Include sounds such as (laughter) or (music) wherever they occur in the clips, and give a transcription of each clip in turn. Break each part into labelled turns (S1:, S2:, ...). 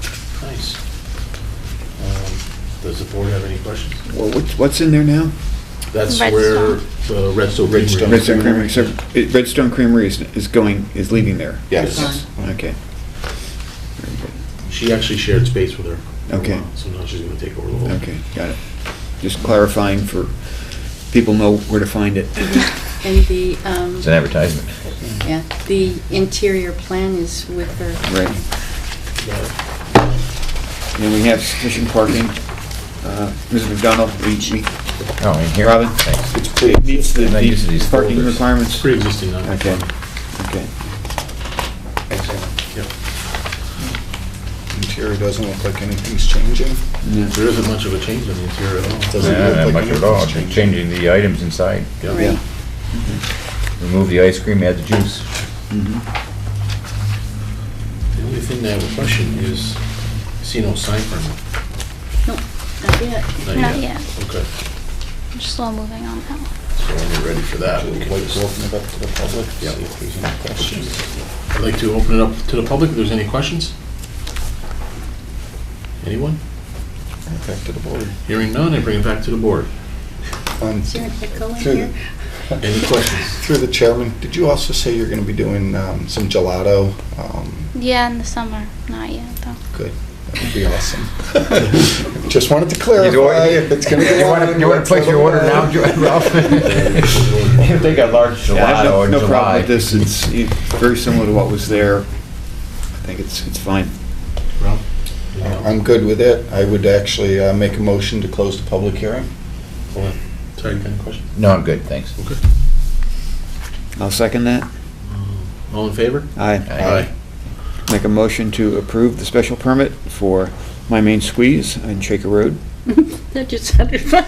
S1: case. Um, Does the board have any questions?
S2: Well, what's, what's in there now?
S1: That's
S3: Red
S1: where the Redstone Creamery.
S2: Redstone Creamery, so it- Redstone Creamery is, is going, is leaving there?
S1: Yes.
S2: Okay.
S1: She actually shared space with her. for a
S2: Okay.
S1: while, So now she's gonna take over the whole.
S2: Okay, got it. Just clarifying for, people know where to find it.
S3: And the, um,
S4: It's an advertisement.
S3: yeah, the interior plan is with her.
S2: Right. And we have sufficient parking. Uh, Ms. McDonald, we, we,
S4: Oh, in here?
S2: Robin?
S4: Thanks.
S1: It's pre,
S2: it meets the,
S4: I'm not used to these
S2: the parking
S4: folders.
S2: requirements?
S1: pre-existing, not.
S2: Okay, okay.
S1: Yep.
S5: Interior doesn't look like anything's changing.
S2: Yeah.
S1: There isn't much of a change in the interior at all.
S5: Doesn't
S4: Not
S5: look
S4: that
S5: like
S4: much at
S5: anything's
S4: all,
S5: changing.
S4: just changing the items inside.
S1: Yeah.
S3: Right.
S2: Yeah.
S4: Remove the ice cream, add the juice.
S2: Mhm.
S1: The only thing that I have a question is, I see no sign permit.
S3: Nope, not yet.
S6: Not yet.
S1: Okay,
S6: I'm slow moving on that one.
S1: so when you're ready for that, we
S5: Would
S1: can
S5: like
S1: just-
S5: to open it up to the public, see
S1: Yeah.
S5: if there's any questions.
S1: I'd like to open it up to the public if there's any questions. Anyone?
S5: And Back to the board.
S1: Hearing none, I bring it back to the board.
S5: Um,
S3: Is there an echo in
S5: Through the-
S3: here?
S1: Any questions?
S5: Through the chairman, did you also say you're going to be doing um, some gelato? Um,
S6: Yeah, in the summer. Not yet, though.
S5: Good, that would be awesome.
S4: (laughs)
S2: Mm-hmm. (laughs)
S5: (laughs) Just wanted to clarify
S4: You want-
S5: if it's going to
S4: You
S5: go
S4: wanna-
S5: on.
S4: You want to
S5: what's
S4: place your
S5: on
S4: order
S5: the-
S4: now, Jo-
S5: (laughs)
S4: Ralph? If they got large
S2: Yeah, I have
S4: gelato
S2: no-
S4: in
S2: No problem with
S4: July.
S2: this, it's it's very similar to what was there. I think it's, it's fine.
S1: Rob?
S4: Uh,
S5: I'm good with it. I would actually uh, make a motion to close the public hearing.
S1: Hold on. Sorry, you got a question?
S4: No, I'm good, thanks.
S1: Okay.
S2: I'll second that.
S1: All in favor?
S2: Aye.
S4: Aye.
S2: Make a motion to approve the special permit for My Main Squeeze on Shaker Road.
S3: That just sounded (laughs) funny.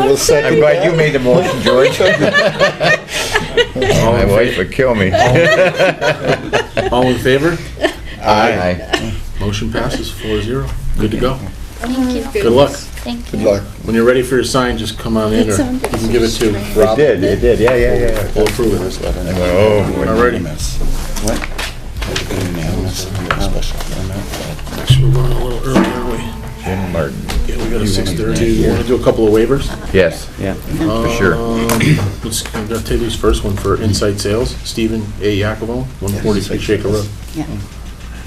S5: I will second
S4: I'm glad you made
S2: (laughs)
S4: the motion, George.
S5: (laughs)
S2: Oh,
S4: My wife would kill me. (laughs)
S1: All in favor?
S4: Aye.
S1: Motion passes four zero. Good to go.
S6: Thank you.
S1: Good luck.
S6: Thank
S5: Good
S6: you.
S5: luck.
S1: When you're ready for your sign, just come on in or
S3: It
S1: you
S3: sounded
S1: can give it
S3: so
S1: to
S3: strange.
S1: Rob.
S4: It did, it did, yeah, yeah, yeah.
S1: We'll approve it.
S5: I
S4: I went, oh, boy.
S1: Alrighty.
S2: What?
S5: Unanimous, special permit.
S1: Actually, we're running a little early, aren't we?
S4: Jim Martin.
S1: Yeah, we got a six thirty.
S4: that
S1: You want to do a couple of waivers?
S4: Yes,
S2: Yeah.
S4: for sure.
S1: Um, Let's, I'm gonna take these first one for inside sales, Stephen A. Yakimo, one forty-six Shaker Road.
S3: Yeah,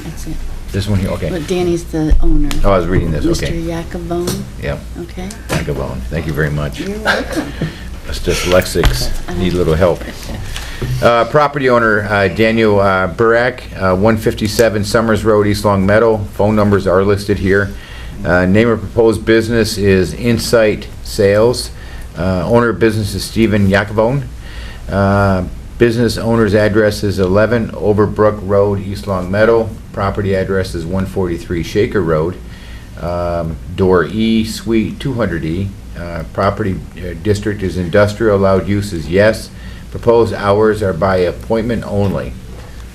S3: that's it.
S4: This one here,
S3: Well,
S4: okay.
S3: Danny's the owner.
S4: Oh, I was reading this,
S3: Mr.
S4: okay.
S3: Yakavone,
S4: Yeah,
S3: okay?
S4: thank you, Bowen. Thank you very much.
S3: You're welcome.
S4: Us dyslexics need a little help. Uh, Property owner uh, Daniel uh, Burak, uh, 157 Summers Road, East Long Meadow. Phone numbers are listed here. Uh, Name of proposed business is Insight Sales. Uh, Owner of business is Stephen Yakavone. Uh, Business owner's address is 11 Overbrook Road, East Long Meadow. Property address is 143 Shaker Road. Um, Door E, Suite 200E. Uh, Property uh, district is industrial, allowed use is yes. Proposed hours are by appointment only.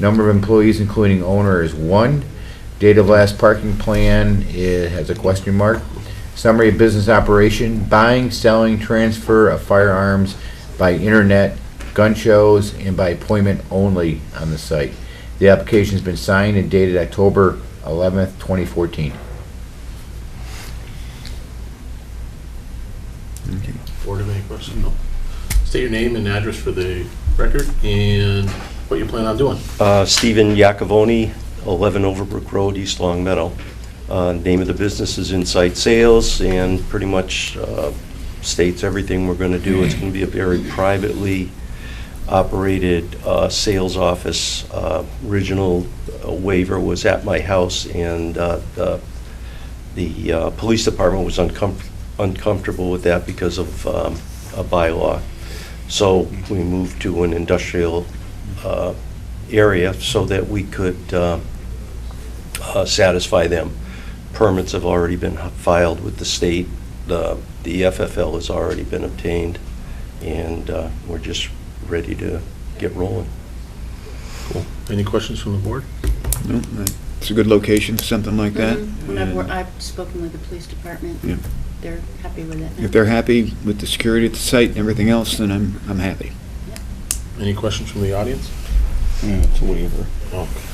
S4: Number of employees, including owner, is one. Date of last parking plan, it has a question mark. Summary of business operation, buying, selling, transfer of firearms by internet, gun shows, and by appointment only on the site. The application's been signed and dated October 11th, 2014.
S1: Board have any questions? No. State your name and address for the record and what you plan on doing.
S7: Uh, Stephen Yakavoni, 11 Overbrook Road, East Long Meadow. Uh, Name of the business is Insight Sales, and pretty much uh, states everything we're going to do. It's going to be a very privately operated uh, sales office. Uh, Original uh, waiver was at my house, and uh, the the uh, police department was uncom- uncomfortable with that because of um, a bylaw. So we moved to an industrial uh, area so that we could uh, uh, satisfy them. Permits have already been filed with the state, the the FFL has already been obtained, and uh, we're just ready to get rolling.
S1: Any questions from the board?
S2: No, no. It's a good location for something like that.
S3: Mhm. When I've,
S2: And
S3: wor- I've spoken with the police department.
S2: Yeah.
S3: They're happy with it.
S2: If they're happy with the security at the site and everything else, then I'm, I'm happy.
S1: Any questions from the audience?
S5: Yeah, it's a waiver.
S1: Okay.